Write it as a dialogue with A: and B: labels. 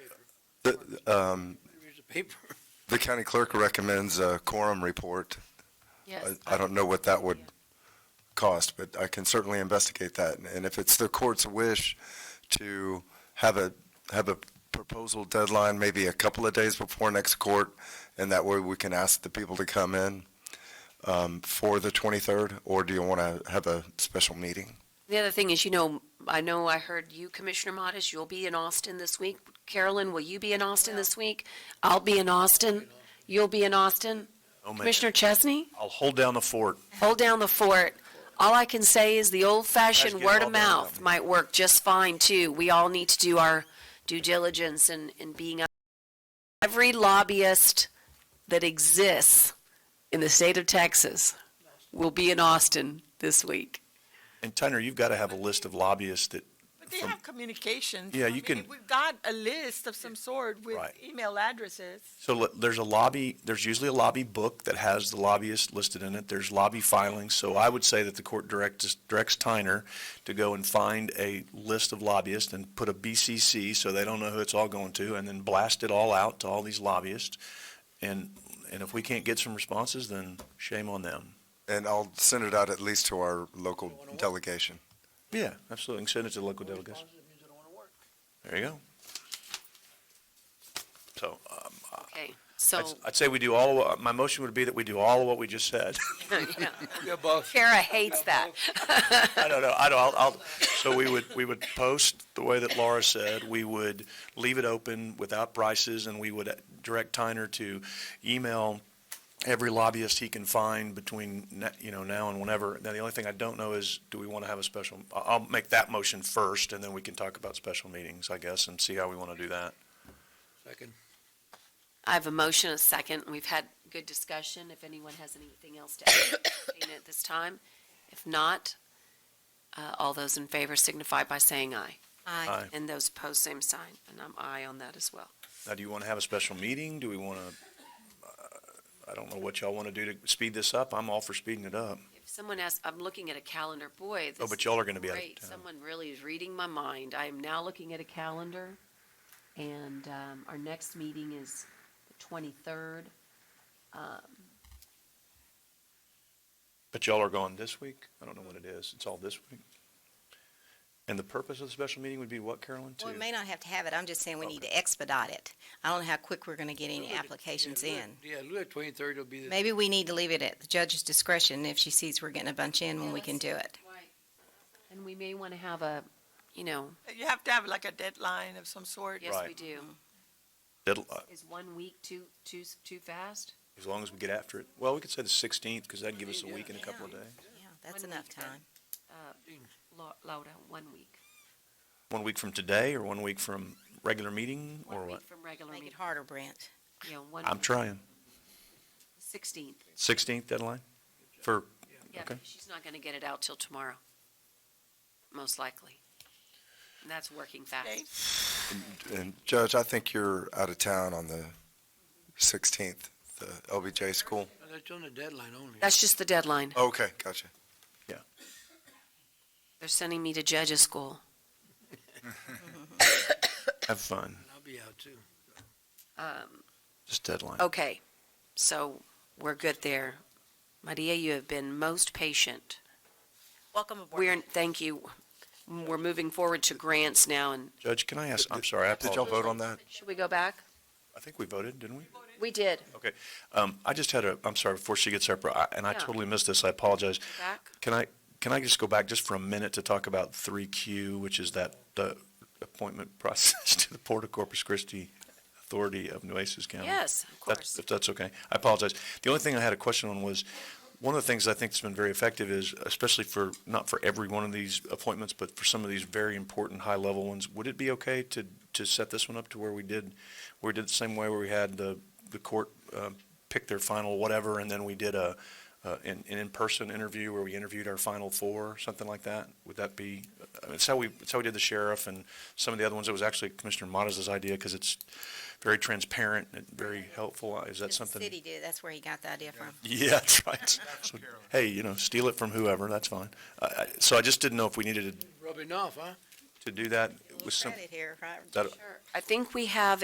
A: um,
B: Here's the paper.
A: the county clerk recommends a quorum report.
C: Yes,
A: I- I don't know what that would cost, but I can certainly investigate that. And if it's the court's wish to have a, have a proposal deadline, maybe a couple of days before next court, and that way we can ask the people to come in um, for the 23rd, or do you want to have a special meeting?
C: the other thing is, you know, I know I heard you, Commissioner Modis, you'll be in Austin this week. Carolyn, will you be in Austin this week? I'll be in Austin. You'll be in Austin.
D: Oh, man.
C: Commissioner Chesney,
D: I'll hold down the fort.
C: hold down the fort. All I can say is the
D: Guys,
C: old-fashioned
D: get it all
C: word of
D: done now.
C: mouth might work just fine, too. We all need to do our due diligence and, and being, every lobbyist that exists in the state of Texas will be in Austin this week.
D: And Tyner, you've got to have a list of lobbyists that,
E: But they
D: from-
E: have communications.
D: Yeah,
E: I
D: you
E: mean,
D: can-
E: We've got a list of some sort with
D: Right.
E: email addresses.
D: so le- there's a lobby, there's usually a lobby book that has the lobbyist listed in it. There's lobby filings. So I would say that the court directs, directs Tyner to go and find a list of lobbyists and put a BCC so they don't know who it's all going to and then blast it all out to all these lobbyists. And, and if we can't get some responses, then shame on them.
A: And I'll send it out at least to our local delegation.
D: Yeah, absolutely. And send it to the local delegates.
B: Positive means I don't want to work.
D: There you go. So, um,
C: Okay,
D: I'd,
C: so,
D: I'd say we do all, of- my motion would be that we do all of what we just said.
C: yeah.
B: Yeah, boss.
C: Kara hates that.
D: I don't know, I don't, I'll, I'll, so we would, we would post the way that Laura said, we would leave it open without prices, and we would direct Tyner to email every lobbyist he can find between, na- you know, now and whenever. Now, the only thing I don't know is, do we want to have a special, I- I'll make that motion first, and then we can talk about special meetings, I guess, and see how we want to do that.
B: Second.
C: I have a motion, a second, and we've had good discussion. If anyone has anything else to add at this time, if not, uh, all those in favor signify by saying aye.
D: Aye.
C: And those opposed, same sign, and I'm aye on that as well.
D: Now, do you want to have a special meeting? Do we want to, I don't know what y'all want to do to speed this up. I'm all for speeding it up.
C: If someone asks, I'm looking at a calendar, boy,
D: Oh,
C: this
D: but
C: is
D: y'all are going to be out of
C: great.
D: town.
C: Someone really is reading my mind. I am now looking at a calendar, and um, our next meeting is the um, 23rd.
D: But y'all are gone this week? I don't know what it is. It's all this week. And the purpose of the special meeting would be what, Carolyn, too?
F: Well, we may not have to have it, I'm just saying we need to expedite it. I don't know how quick we're gonna get any applications
B: Yeah,
F: in.
B: look- Yeah, look, twenty-third will be the.
F: Maybe we need to leave it at the judge's discretion if she sees we're getting a bunch in when we can do it.
C: And we may want to have a, you know,
E: You have to have like a deadline of some sort.
C: yes,
D: Right.
C: we do.
D: Deadli- uh,
C: Is one week too, too, too fast?
D: As long as we get after it. Well, we could say the 16th because that'd give us a week and a couple of days.
F: Yeah, that's
C: One
F: enough
C: week then.
F: time.
C: Uh, Lau- Laura, one week.
D: One week from today or one week from regular meeting or
C: One
D: what?
C: week from regular
F: Make it
C: meeting.
F: harder, Brent.
C: Yeah, one,
D: I'm trying.
C: 16th.
D: 16th deadline for,
C: Yeah,
D: Okay.
C: she's not going to get it out till tomorrow, most likely. And that's working
E: Okay.
C: fast.
A: And Judge, I think you're out of town on the 16th, the LBJ school. Oh,
B: No, That's on the deadline only.
C: That's just the deadline.
A: Okay, gotcha.
C: They're sending me to judge's school.
D: have fun,
B: I'll be out too.
C: Um,
D: just deadline.
C: Okay, so we're good there. Maria, you have been most patient.
G: Welcome aboard.
C: We're, thank you. We're moving forward to grants now, and
D: Judge, can I ask, I'm sorry, I
A: Did y'all
D: apologize.
A: vote on that?
C: should we go back?
D: I think we voted, didn't we?
C: We did.
D: Okay, um, I just had a, I'm sorry, before she gets up, I- and I
C: Yeah.
D: totally missed this, I apologize.
C: Back?
D: Can I, can I just go back just for a minute to talk about three Q, which is that, the appointment process to the Port of Corpus Christi Authority of Nueces County?
C: Yes, of
D: That-
C: course.
D: If that's okay, I apologize. The only thing I had a question on was, one of the things I think that's been very effective is, especially for, not for every one of these appointments, but for some of these very important high-level ones, would it be okay to, to set this one up to where we did, where we did the same way where we had the, the court uh, pick their final whatever, and then we did a, uh, an, an in-person interview where we interviewed our final four, something like that? Would that be, I mean, it's how we, it's how we did the sheriff and some of the other ones. It was actually Commissioner Modis's idea because it's very transparent and very helpful. Uh, Is that
F: The
D: something?
F: city did, that's where he got the idea from.
D: Yeah, that's right. So, Hey, you know, steal it from whoever, that's fine. I- I- So I just didn't know if we needed to
B: Rubbing off, huh?
D: to do that with some,
F: Credit here, right?
D: that,
C: I think we have